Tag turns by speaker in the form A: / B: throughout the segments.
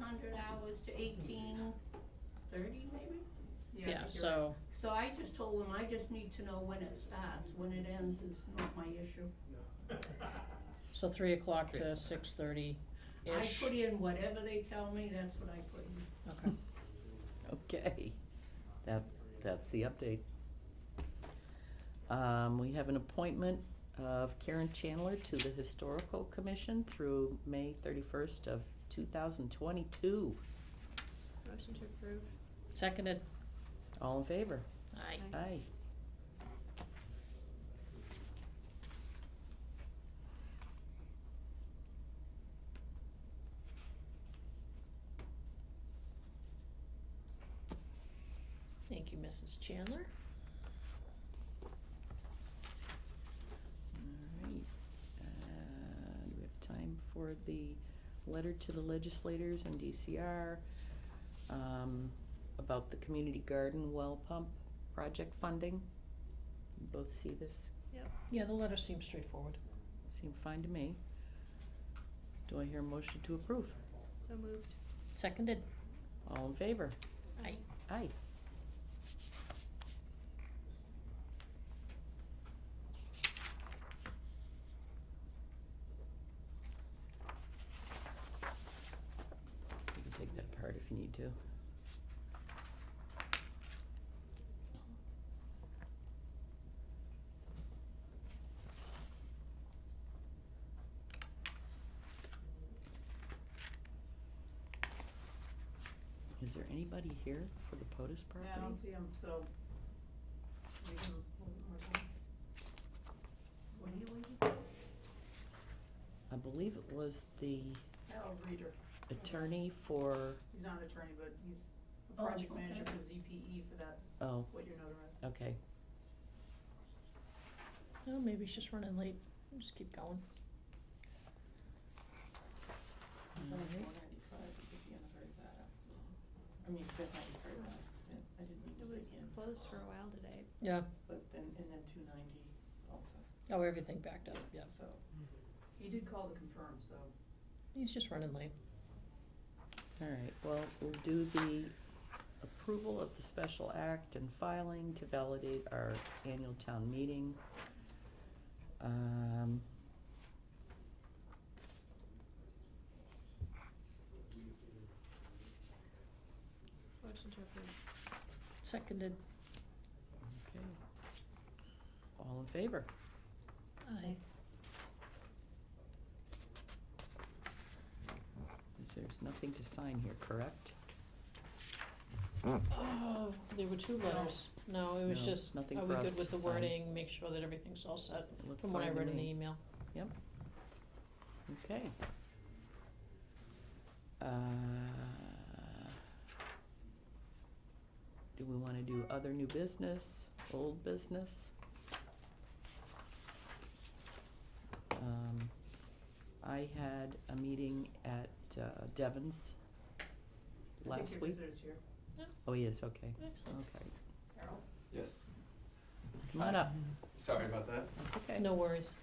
A: hundred hours to eighteen thirty maybe?
B: I
C: Yeah,
B: think you're right.
C: so,
A: So I just told them, I just need to know when it starts, when it ends is not my issue.
C: so three o'clock to six thirty-ish.
A: I put in whatever they tell me, that's what I put in.
C: Okay,
D: Okay, that, that's the update. Um, we have an appointment of Karen Chandler to the Historical Commission through May thirty-first of two thousand twenty-two.
B: Motion to approve.
C: seconded,
D: All in favor?
C: aye.
B: Aye.
D: Aye.
C: Thank you, Mrs. Chandler.
D: All right. Uh, do we have time for the letter to the legislators and DCR um, about the community garden well pump project funding? You Both see this?
C: Yeah, the letter seems straightforward.
D: Seemed fine to me. Do I hear a motion to approve?
B: So moved.
C: Seconded,
D: All in favor?
C: aye.
D: Aye. You can take that apart if you need to. Is there anybody here for the POTUS property?
B: Yeah, I don't see him, so we can hold it more time.
A: What are you waiting for?
D: I believe it was the
B: Al Reader,
D: attorney for,
B: he's not an attorney, but he's a
A: Oh,
B: project manager
A: okay.
B: for ZPE for that,
D: oh,
B: what you're notarizing.
D: okay,
C: Oh, maybe he's just running late, We'll just keep going.
B: It's only
D: Alright.
B: 495, it could be on a very bad accident. I mean, that might be a very bad accident, I didn't mean to
E: It
B: say
E: was
B: him,
E: closed for a while today.
C: Yeah,
B: but then, and then two ninety also,
C: oh, everything backed up, yeah,
B: so. He did call to confirm, so.
C: he's just running late.
D: all right, well, we'll do the approval of the special act and filing to validate our annual town meeting. Um.
E: Motion to approve.
C: Seconded,
D: Okay. All in favor?
C: aye.
D: There's nothing to sign here, correct?
C: Oh, there were two letters, no, it was
D: No,
C: just, are we
D: nothing for us
C: good with
D: to
C: the
D: sign.
C: wording, make sure that everything's all set,
D: It looked
C: from what I
D: fine to
C: read in the
D: me.
C: email.
D: Okay. Uh, Do we wanna do other new business, old business? Um, I had a meeting at uh, Devon's
B: I
D: last week.
B: think your visitor's here,
D: Oh, yes, okay,
C: Excellent.
D: okay.
B: Carol?
F: Yes,
D: Come on up,
F: sorry about that.
D: that's okay.
C: No worries.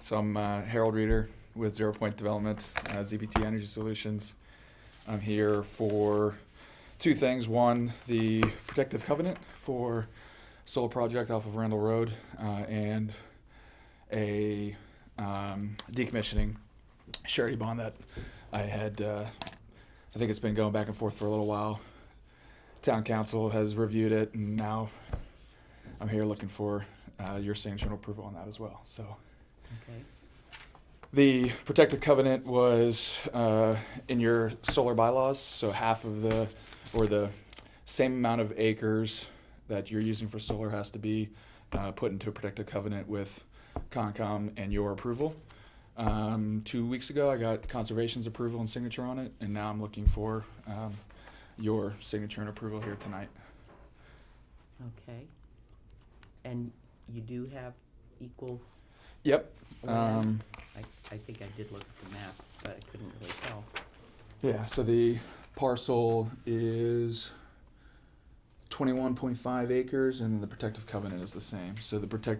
F: So I'm uh, Harold Reeder with Zero Point Development, uh, ZPT Energy Solutions. I'm here for two things. One, the protective covenant for solar project off of Randall Road, uh, and a um, decommissioning surety bond that I had. Uh, I think it's been going back and forth for a little while. Town council has reviewed it, and now I'm here looking for uh, your sanction and approval on that as well. So.
D: Okay,
F: The protective covenant was uh, in your solar bylaws, so half of the, or the same amount of acres that you're using for solar has to be uh, put into a protective covenant with Concom and your approval. Um, two weeks ago, I got conservation's approval and signature on it, and now I'm looking for um, your signature and approval here tonight.
D: okay. And you do have equal
F: Yep.
D: land?
F: Um,
D: I, I think I did look at the map, but I couldn't really tell.
F: Yeah, so the parcel is twenty-one point five acres and the protective covenant is the same. So the protective